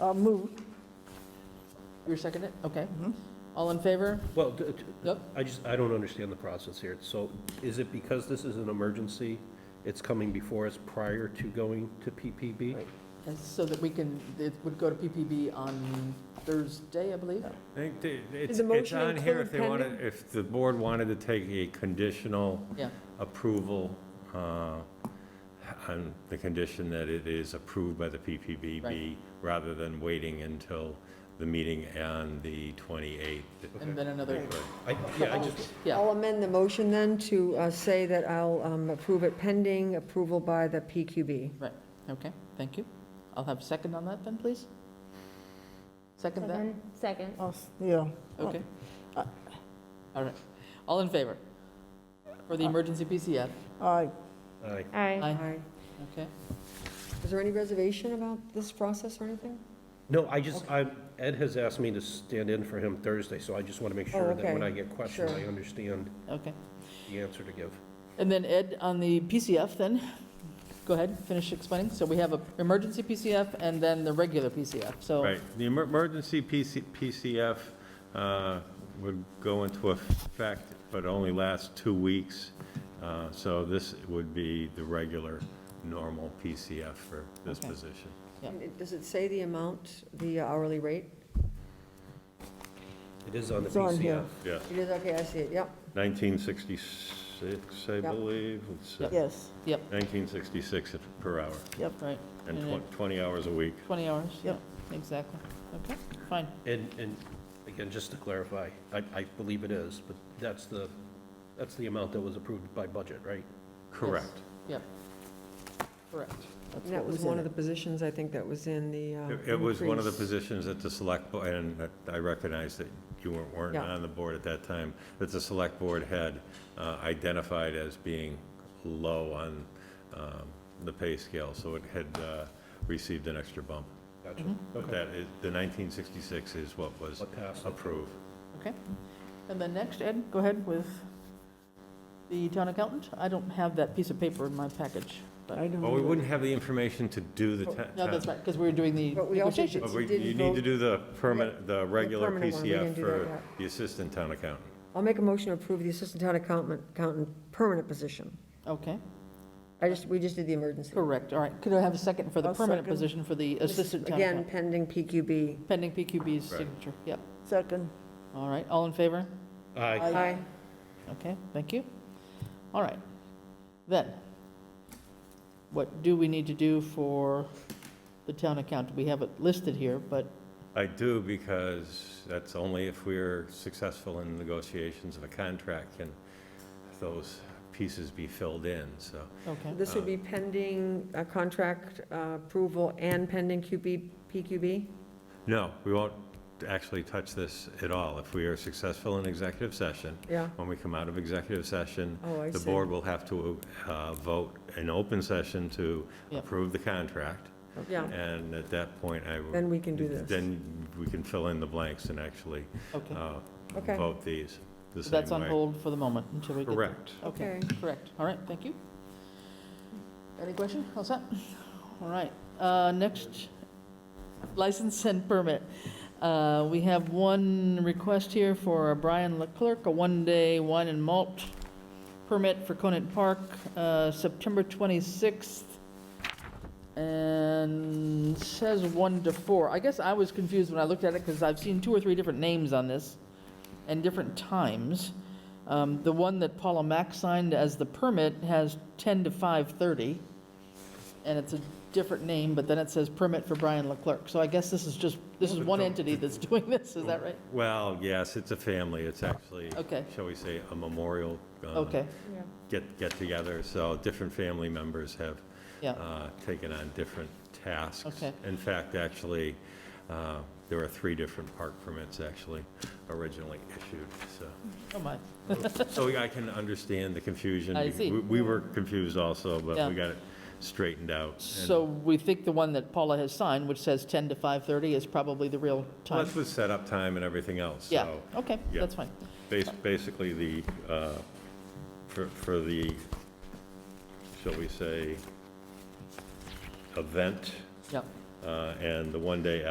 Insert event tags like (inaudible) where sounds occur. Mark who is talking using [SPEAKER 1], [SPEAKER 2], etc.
[SPEAKER 1] I'll move.
[SPEAKER 2] Uh, You're second it? Okay. All in favor?
[SPEAKER 3] Well, d- d-
[SPEAKER 2] Yep.
[SPEAKER 3] I just, I don't understand the process here. So is it because this is an emergency, it's coming before us prior to going to PPB?
[SPEAKER 2] And So that we can, it would go to PPB on Thursday, I believe?
[SPEAKER 4] I think the- it's,
[SPEAKER 1] the
[SPEAKER 4] it's
[SPEAKER 1] motion
[SPEAKER 4] on
[SPEAKER 1] include
[SPEAKER 4] here if they want
[SPEAKER 1] pending?
[SPEAKER 4] to, if the board wanted to take a conditional
[SPEAKER 2] Yeah.
[SPEAKER 4] approval uh, on the condition that it is approved by the PPPB,
[SPEAKER 2] Right.
[SPEAKER 4] rather than waiting until the meeting on the 28th.
[SPEAKER 2] And then another,
[SPEAKER 3] I, yeah, I just,
[SPEAKER 2] yeah,
[SPEAKER 1] I'll amend the motion then to uh, say that I'll um, approve it pending approval by the PQB.
[SPEAKER 2] okay, thank you. I'll have second on that then, please? Second that?
[SPEAKER 5] Second.
[SPEAKER 1] Yeah.
[SPEAKER 2] Okay. All right. All in favor? For the emergency PCF?
[SPEAKER 1] Aye.
[SPEAKER 3] I,
[SPEAKER 5] Aye.
[SPEAKER 2] Aye.
[SPEAKER 1] Aye.
[SPEAKER 2] Okay.
[SPEAKER 1] Is there any reservation about this process or anything?
[SPEAKER 3] no, I just, I, Ed has asked me to stand in for him Thursday, so I just want to make sure that when
[SPEAKER 1] Oh, okay.
[SPEAKER 3] I get questioned,
[SPEAKER 1] Sure.
[SPEAKER 3] I understand
[SPEAKER 2] Okay.
[SPEAKER 3] the answer to give.
[SPEAKER 2] And then Ed, on the PCF then, go ahead, finish explaining. So we have a emergency PCF and then the regular PCF, so.
[SPEAKER 4] Right, the emer- emergency PC PCF uh, would go into effect, but only last two weeks. Uh, So this would be the regular, normal PCF for this
[SPEAKER 2] Okay.
[SPEAKER 4] position.
[SPEAKER 2] Yeah.
[SPEAKER 1] And it- Does it say the amount, the hourly rate?
[SPEAKER 3] It is on the
[SPEAKER 1] It's on here.
[SPEAKER 3] PCF.
[SPEAKER 4] Yes,
[SPEAKER 1] It is, okay, I see it, yep.
[SPEAKER 4] 1966, I
[SPEAKER 1] Yep.
[SPEAKER 4] believe. It's, uh,
[SPEAKER 2] Yep.
[SPEAKER 1] Yes.
[SPEAKER 4] 1966 per hour,
[SPEAKER 2] Right,
[SPEAKER 4] and
[SPEAKER 2] And
[SPEAKER 4] tw- 20 hours a week.
[SPEAKER 2] 20 hours. yeah,
[SPEAKER 1] Yep.
[SPEAKER 2] Exactly. Okay, fine.
[SPEAKER 3] And, and again, just to clarify, I, I believe it is, but that's the, that's the amount that was approved by budget, right?
[SPEAKER 4] Correct.
[SPEAKER 2] Correct. That's
[SPEAKER 1] And that
[SPEAKER 2] what
[SPEAKER 1] was
[SPEAKER 2] in
[SPEAKER 1] one of the
[SPEAKER 2] it.
[SPEAKER 1] positions, I think, that was in the uh,
[SPEAKER 4] It- It was one of the
[SPEAKER 1] increase.
[SPEAKER 4] positions that the select, bo- and that I recognize that you weren't, weren't
[SPEAKER 1] Yeah.
[SPEAKER 4] on the board at that time, that the select board had uh, identified as being low on um, the pay scale, so it had uh, received an extra bump.
[SPEAKER 3] Gotcha.
[SPEAKER 1] Mm-hmm.
[SPEAKER 2] Mhm.
[SPEAKER 4] But
[SPEAKER 3] Okay.
[SPEAKER 4] that is, the 1966 is what was
[SPEAKER 3] What passed?
[SPEAKER 4] approved.
[SPEAKER 2] And then next, Ed, go ahead with the town accountant. I don't have that piece of paper in my package. but- Oh,
[SPEAKER 4] Well, we wouldn't have the information to do the. ta-
[SPEAKER 2] No, that's
[SPEAKER 4] ta-
[SPEAKER 2] right, because we were doing the
[SPEAKER 1] But we also did-
[SPEAKER 2] negotiations.
[SPEAKER 4] But we-
[SPEAKER 1] Didn't
[SPEAKER 4] you need to
[SPEAKER 1] vote-
[SPEAKER 4] do the permanent, the regular
[SPEAKER 1] permanent one, we
[SPEAKER 4] PCF
[SPEAKER 1] didn't do that
[SPEAKER 4] for
[SPEAKER 1] yet.
[SPEAKER 4] the assistant town accountant.
[SPEAKER 1] I'll make a motion to approve the assistant town accountant, accountant permanent position.
[SPEAKER 2] Okay,
[SPEAKER 1] I just, we just did the emergency.
[SPEAKER 2] correct, all right. Could I have a second for the
[SPEAKER 1] I'll
[SPEAKER 2] permanent
[SPEAKER 1] second.
[SPEAKER 2] position for the assistant town
[SPEAKER 1] Again,
[SPEAKER 2] accountant?
[SPEAKER 1] pending PQB.
[SPEAKER 2] Pending PQB's
[SPEAKER 4] Right.
[SPEAKER 2] signature, yep.
[SPEAKER 1] Second.
[SPEAKER 2] All right, all in favor?
[SPEAKER 3] Aye.
[SPEAKER 1] Aye.
[SPEAKER 2] Okay, thank you. All right. Then, what do we need to do for the town accountant? We have it listed here, but,
[SPEAKER 4] I do, because that's only if we're successful in negotiations of a contract can those pieces be filled in, so.
[SPEAKER 2] okay,
[SPEAKER 1] This would be pending uh, contract uh, approval and pending QB, PQB?
[SPEAKER 4] No, we won't actually touch this at all. If we are successful in executive session,
[SPEAKER 1] Yeah,
[SPEAKER 4] when we come out of executive session,
[SPEAKER 1] oh, I see.
[SPEAKER 4] the board will have to uh, vote in open session to
[SPEAKER 2] Yep.
[SPEAKER 4] approve the contract,
[SPEAKER 1] Yeah,
[SPEAKER 4] and at that point, I would.
[SPEAKER 1] then we can do this.
[SPEAKER 4] Then we can fill in the blanks and actually
[SPEAKER 2] okay.
[SPEAKER 4] uh,
[SPEAKER 1] Okay.
[SPEAKER 4] vote these the
[SPEAKER 2] So
[SPEAKER 4] same way.
[SPEAKER 2] that's on hold for the moment until we get.
[SPEAKER 4] Correct.
[SPEAKER 2] Okay,
[SPEAKER 1] Okay.
[SPEAKER 2] correct. All right, thank you. Any question? All set? All right, uh, next, license and permit. Uh, We have one request here for Brian Leclerc, a one-day wine and malt permit for Conant Park, uh, September 26th, and says 1 to 4. I guess I was confused when I looked at it, because I've seen two or three different names on this and different times. Um, The one that Paula Mack signed as the permit has 10 to 5:30, and it's a different name, but then it says permit for Brian Leclerc. So I guess this is just, this is one entity that's (laughs) doing this, is that right?
[SPEAKER 4] Well, yes, it's a family. It's actually,
[SPEAKER 2] Okay,
[SPEAKER 4] shall we say, a memorial uh,
[SPEAKER 2] okay,
[SPEAKER 4] get, get together. So different family members have
[SPEAKER 2] Yeah.
[SPEAKER 4] uh, taken on different tasks.
[SPEAKER 2] Okay.
[SPEAKER 4] In fact, actually, uh, there are three different park permits actually originally issued,
[SPEAKER 2] (laughs)
[SPEAKER 4] so.
[SPEAKER 2] oh my,
[SPEAKER 4] So I can understand the confusion.
[SPEAKER 2] I see.
[SPEAKER 4] We- We were confused also, but
[SPEAKER 2] Yeah.
[SPEAKER 4] we got it straightened out. and-
[SPEAKER 2] so we think the one that Paula has signed, which says 10 to 5:30, is probably the real
[SPEAKER 4] Well,
[SPEAKER 2] time?
[SPEAKER 4] This was set up time and everything else, so.
[SPEAKER 2] Yeah, okay,
[SPEAKER 4] yeah.
[SPEAKER 2] that's fine.
[SPEAKER 4] Bas- Basically, the, uh, for for the, shall we say, event
[SPEAKER 2] Yep.
[SPEAKER 4] uh, and the one-day